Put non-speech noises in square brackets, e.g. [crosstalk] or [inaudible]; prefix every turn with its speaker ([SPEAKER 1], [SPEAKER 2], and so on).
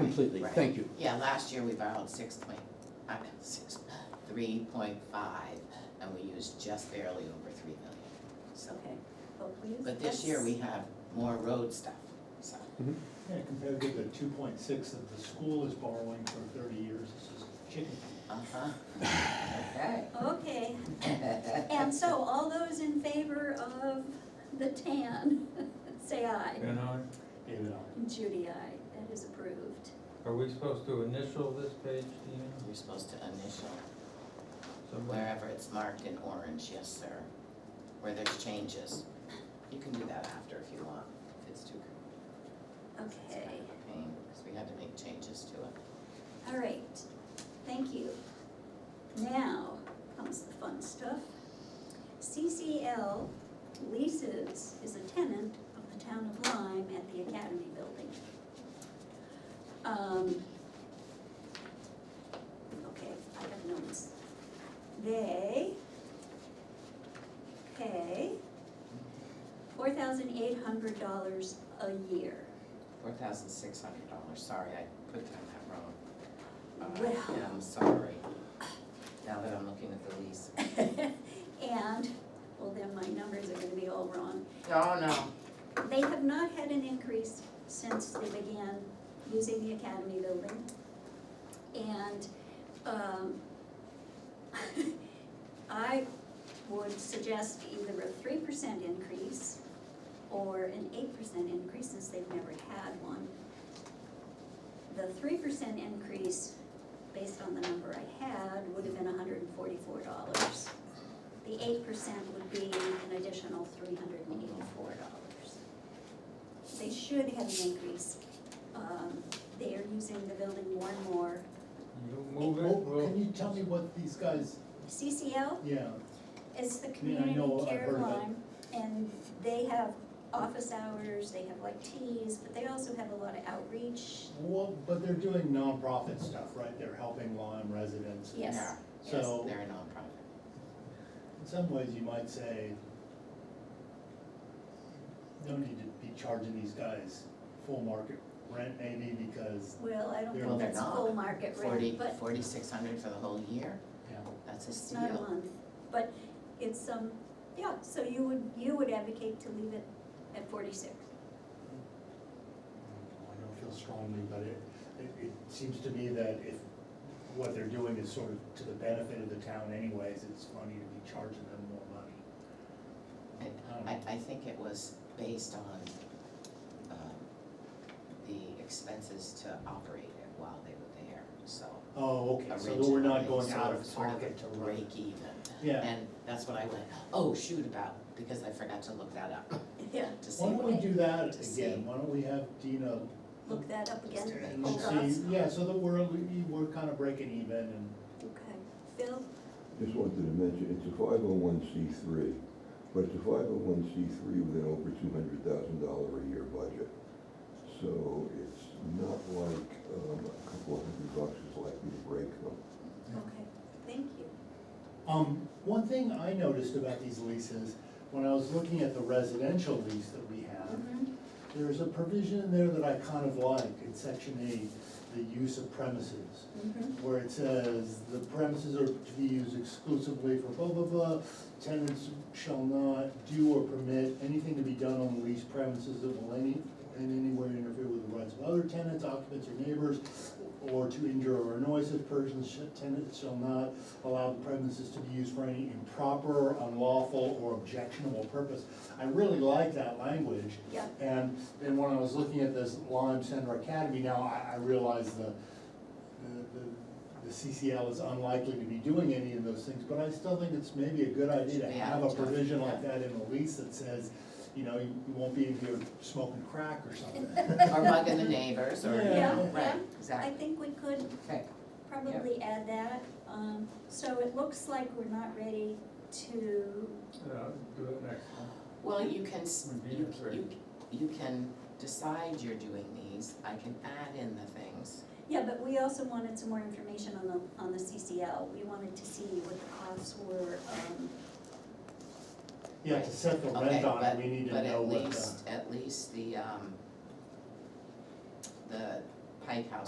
[SPEAKER 1] completely,
[SPEAKER 2] Right.
[SPEAKER 1] thank you.
[SPEAKER 2] Yeah, last year we borrowed six point, I mean, six, three point five, and we used just barely over three million, so.
[SPEAKER 3] Okay, well, please.
[SPEAKER 2] But this year we have more road stuff, so.
[SPEAKER 4] Yeah, compared to the two point six that the school is borrowing for thirty years, this is chicken.
[SPEAKER 2] [laughs] Uh-huh. Okay.
[SPEAKER 3] Okay, and so all those in favor of the tan, [laughs] say aye.
[SPEAKER 5] You know,
[SPEAKER 4] David, I.
[SPEAKER 3] And Judy, aye, that is approved.
[SPEAKER 5] are we supposed to initial this page, do you know?
[SPEAKER 2] You're supposed to initial
[SPEAKER 5] Somebody-
[SPEAKER 2] wherever it's marked in orange, yes, sir, where there's changes. You can do that after if you want, if it's too, it's kind
[SPEAKER 3] Okay,
[SPEAKER 2] of a pain, because we had to make changes to it.
[SPEAKER 3] all right, thank you. Now comes the fun stuff. CCL leases is a tenant of the town of Lyme at the Academy Building. Um, Okay, I have notes. They pay four thousand eight hundred dollars a year.
[SPEAKER 2] Four thousand six hundred dollars, sorry, I put down that wrong. Uh,
[SPEAKER 3] Well.
[SPEAKER 2] yeah, I'm sorry, now that I'm looking at the lease.
[SPEAKER 3] [laughs] And, well, then my numbers are gonna be all wrong.
[SPEAKER 2] Oh, no,
[SPEAKER 3] They have not had an increase since they began using the academy building. And, um, [laughs] I would suggest either a three percent increase or an eight percent increase since they've never had one. The three percent increase, based on the number I had, would have been hundred and forty-four dollars. The eight percent would be an additional three hundred and eighty-four dollars. They should have an increase. Um, they are using the building more and more.
[SPEAKER 5] You move it,
[SPEAKER 4] Well, Can
[SPEAKER 5] we'll,
[SPEAKER 4] you tell me what these guys,
[SPEAKER 3] CCL
[SPEAKER 4] yeah,
[SPEAKER 3] is the
[SPEAKER 4] mean, I
[SPEAKER 3] community
[SPEAKER 4] know, I've
[SPEAKER 3] care
[SPEAKER 4] heard of it.
[SPEAKER 3] line, and they have office hours, they have like teas, but they also have a lot of outreach.
[SPEAKER 4] well, but they're doing nonprofit stuff, right? They're helping Lyme residents.
[SPEAKER 3] Yes,
[SPEAKER 2] Yeah. yes,
[SPEAKER 4] So
[SPEAKER 2] they're a nonprofit,
[SPEAKER 4] in some ways, you might say, no need to be charging these guys full market rent maybe because,
[SPEAKER 3] well, I don't
[SPEAKER 4] They're
[SPEAKER 3] think
[SPEAKER 4] not-
[SPEAKER 3] that's full market
[SPEAKER 2] forty,
[SPEAKER 3] rate, but
[SPEAKER 2] forty-six hundred for the whole year,
[SPEAKER 4] yeah,
[SPEAKER 2] that's a
[SPEAKER 3] it's not a
[SPEAKER 2] steal.
[SPEAKER 3] month, but it's, um, yeah, so you would, you would advocate to leave it at forty-six.
[SPEAKER 4] I don't feel strongly, but it, it, it seems to me that if what they're doing is sort of to the benefit of the town anyways, it's funny to be charging them more money.
[SPEAKER 2] I, I, I think it was based on, um, the expenses to operate it while they were there, so.
[SPEAKER 4] Oh, okay, so
[SPEAKER 2] originally,
[SPEAKER 4] that we're not going
[SPEAKER 2] so
[SPEAKER 4] out
[SPEAKER 2] it's
[SPEAKER 4] of
[SPEAKER 2] sort a
[SPEAKER 4] pocket to run.
[SPEAKER 2] Break even,
[SPEAKER 4] Yeah,
[SPEAKER 2] and that's what I went, oh, shoot about, because I forgot to look that up
[SPEAKER 3] Yeah,
[SPEAKER 2] to see
[SPEAKER 4] why don't
[SPEAKER 2] what.
[SPEAKER 4] we do that
[SPEAKER 2] To see.
[SPEAKER 4] again, why don't we have Dina
[SPEAKER 3] look that up again,
[SPEAKER 2] Just
[SPEAKER 4] and
[SPEAKER 3] hold on,
[SPEAKER 4] see, yeah, so that we're, we're kind of breaking even and.
[SPEAKER 3] okay, Phil,
[SPEAKER 6] Just wanted to mention, it's a five oh one C three, but it's a five oh one C three with an over two hundred thousand dollar a year budget. So it's not like, um, a couple of hundred bucks is likely to break them.
[SPEAKER 3] okay, thank you.
[SPEAKER 4] Um, one thing I noticed about these leases, when I was looking at the residential lease that we have,
[SPEAKER 3] Mhm.
[SPEAKER 4] there's a provision in there that I kind of like, in section eight, the use of premises.
[SPEAKER 3] Mhm.
[SPEAKER 4] where it says, the premises are to be used exclusively for blah, blah, blah, tenants shall not do or permit anything to be done on the leased premises that will any, in any way interfere with the rights of other tenants, occupants, or neighbors, or to injure or annoy such persons, Sh- tenants shall not allow the premises to be used for any improper, unlawful, or objectionable purpose. I really like that language.
[SPEAKER 3] Yeah.
[SPEAKER 4] And then when I was looking at this Lime Center Academy, now I, I realize the, the, the CCL is unlikely to be doing any of those things, but I still think it's maybe a good idea to
[SPEAKER 2] Yeah,
[SPEAKER 4] have a
[SPEAKER 2] yeah.
[SPEAKER 4] provision like that in the lease that says, you know, you you won't be in here smoking crack or something.
[SPEAKER 2] [laughs] Or
[SPEAKER 4] [laughs]
[SPEAKER 2] bugging the neighbors, or, you
[SPEAKER 4] Yeah,
[SPEAKER 2] know,
[SPEAKER 3] yeah.
[SPEAKER 2] right,
[SPEAKER 3] I
[SPEAKER 2] exactly,
[SPEAKER 3] think we could
[SPEAKER 2] okay,
[SPEAKER 3] probably add that, um, so it looks like we're not ready to,
[SPEAKER 5] uh, do it next time.
[SPEAKER 2] well, you can, s-
[SPEAKER 5] Would be
[SPEAKER 2] you,
[SPEAKER 5] that's right.
[SPEAKER 2] you, you can decide you're doing these, I can add in the things.
[SPEAKER 3] yeah, but we also wanted some more information on the, on the CCL. We wanted to see what the costs were, um,
[SPEAKER 4] Yeah, to set the
[SPEAKER 2] Okay,
[SPEAKER 4] rent on it,
[SPEAKER 2] but-
[SPEAKER 4] we need to know
[SPEAKER 2] But at
[SPEAKER 4] what the.
[SPEAKER 2] least, at least the, um, the Pike House